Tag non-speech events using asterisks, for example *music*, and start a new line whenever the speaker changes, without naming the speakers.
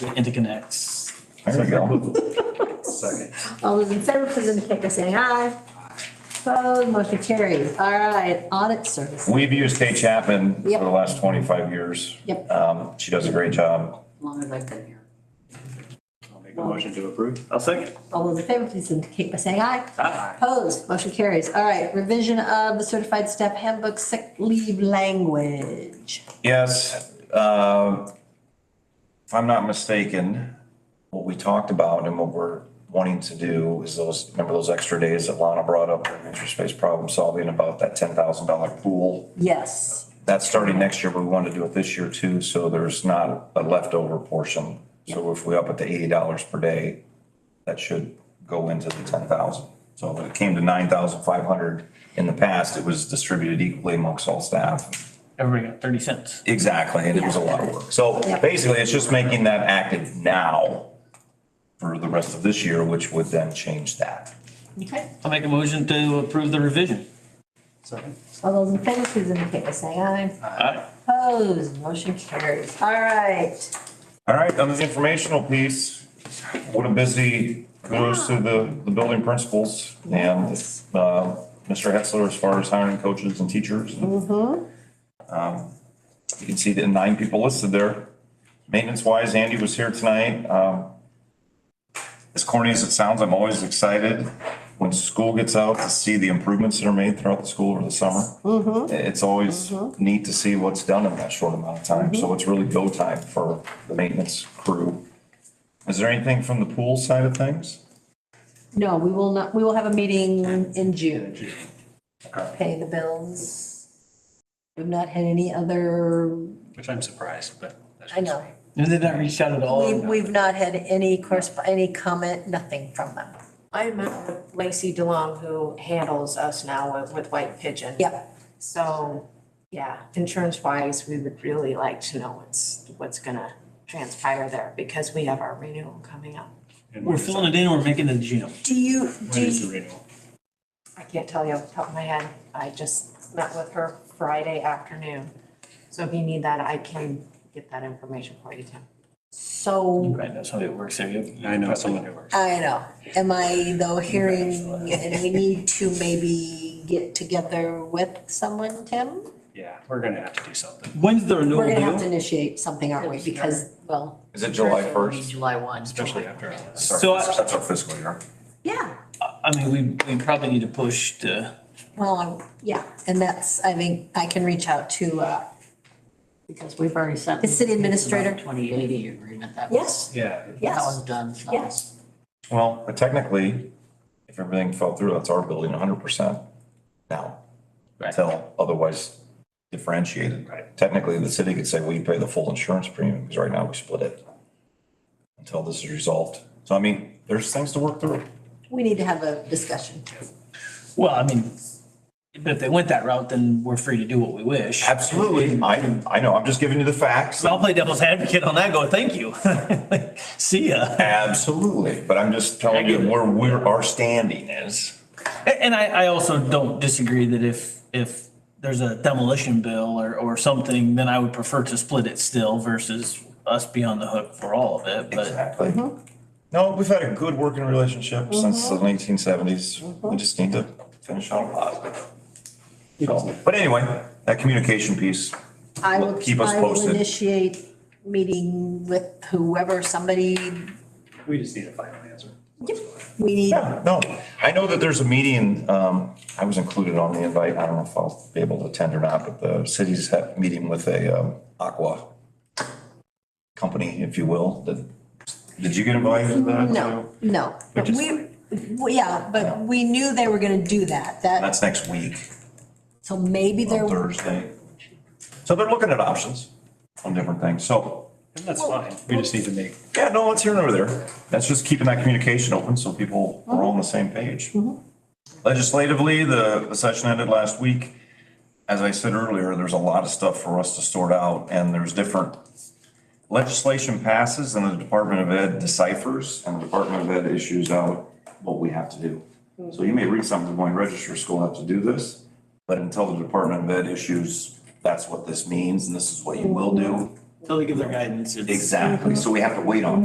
interconnects.
There you go.
Second.
All those in favor, please indicate by saying aye. Opposed, motion carries. All right, audit service.
We've used Kay Chapman for the
Yep.
last twenty-five years.
Yep.
Um, she does a great job.
Long as I've been here.
I'll make a motion to approve.
I'll second.
All those in favor, please indicate by saying aye.
Aye.
Opposed, motion carries. All right, revision of the certified step handbook sick leave language.
Yes, uh, if I'm not mistaken, what we talked about and what we're wanting to do is those, remember those extra days that Lana brought up in interest-based problem solving about that ten thousand dollar pool?
Yes,
That's starting next year, but we want to do it this year too, so there's not a leftover portion. So if we up it to eighty dollars per day, that should go into the ten thousand. So when it came to nine thousand five hundred in the past, it was distributed equally amongst all staff.
Everybody got thirty cents.
Exactly, and it was a lot of work. So basically, it's just making that active now for the rest of this year, which would then change that.
okay.
I'll make a motion to approve the revision.
Second.
All those in favor, please indicate by saying aye.
Aye.
Opposed, motion carries. All right.
All right, on the informational piece, what a busy goes to the, the building principals and, uh, Mr. Hetzler as far as hiring coaches and teachers. Um, you can see the nine people listed there. Maintenance wise, Andy was here tonight. Um, as corny as it sounds, I'm always excited when school gets out to see the improvements that are made throughout the school over the summer. It's always neat to see what's done in that short amount of time, so it's really go time for the maintenance crew. Is there anything from the pool side of things?
No, we will not, we will have a meeting in June. Pay the bills. We've not had any other,
Which I'm surprised, but. that's-
I know,
And did that reach out at
Oh,
all?
we've, we've not had any correspond, any comment, nothing from them.
I met with Lacey DeLong, who handles us now with, with White Pigeon.
Yep,
So, yeah, insurance wise, we would really like to know what's, what's gonna transpire there because we have our renewal coming up.
And
We're
when is it-
filling it in, we're making it a gym.
do you, do
When is the
you,
renewal?
I can't tell you off the top of my head. I just met with her Friday afternoon. So if you need that, I can get that information for you, Tim.
so,
Right, that's how it works. I
I know someone who works.
I know, am I though hearing, and we need to maybe get together with someone, Tim?
Yeah, we're gonna have to do something.
When's the
We're
renewal
gonna have to
due?
initiate something, aren't we, because, well,
Is it July
It'll be
first?
July one.
Especially after. all this.
So I-
That's our fiscal year.
yeah,
I mean, we, we probably need to push to,
Well, I'm- yeah, and that's, I think, I can reach out to, uh,
Because we've already sent.
The city administrator.
Twenty eighty agreement, that was,
yes,
Yeah.
that
yes,
was done, so.
yes.
Well, but technically, if everything fell through, that's our building hundred percent now. Until otherwise differentiated.
Right.
Technically, the city could say, well, you pay the full insurance premium, because right now we split it. Until this is resolved. So I mean, there's things to work through.
We need to have a discussion.
well, I mean, but if they went that route, then we're free to do what we wish.
Absolutely. I, I know, I'm just giving you the facts.
So I'll play devil's advocate on that, go, thank you. *laughs* See ya.
Absolutely, but I'm just telling you where we're, our standing is.
A- And I, I also don't disagree that if, if there's a demolition bill or, or something, then I would prefer to split it still versus us be on the hook for all of it, but
Exactly. No, we've had a good working relationship since the nineteen seventies. We just need to finish on a positive. So, But anyway, that communication piece,
I will,
Keep us
I will
posted.
initiate meeting with whoever, somebody,
We just need a final answer.
we need,
yeah, no, I know that there's a meeting, um, I was included on the invite. I don't know if I'll be able to attend or not, but the city's ha- meeting with a, um, aqua company, if you will, that, did you get invited to that?
no, no. But
just-
we, we- yeah, but we knew they were gonna do that, that,
That's next week.
so maybe
on
there,
Thursday. So they're looking at options on different things. So,
And that's fine. We just need to make.
yeah, no, it's here and over there. That's just keeping that communication open so people are all on the same page. Legislatively, the, the session ended last week. As I said earlier, there's a lot of stuff for us to sort out and there's different legislation passes and the Department of Ed deciphers and the Department of Ed issues out what we have to do. So you may read something going, register school have to do this, but until the Department of Ed issues, that's what this means and this is what you will do.
until they give their guidance, it's.
Exactly, so we have to wait on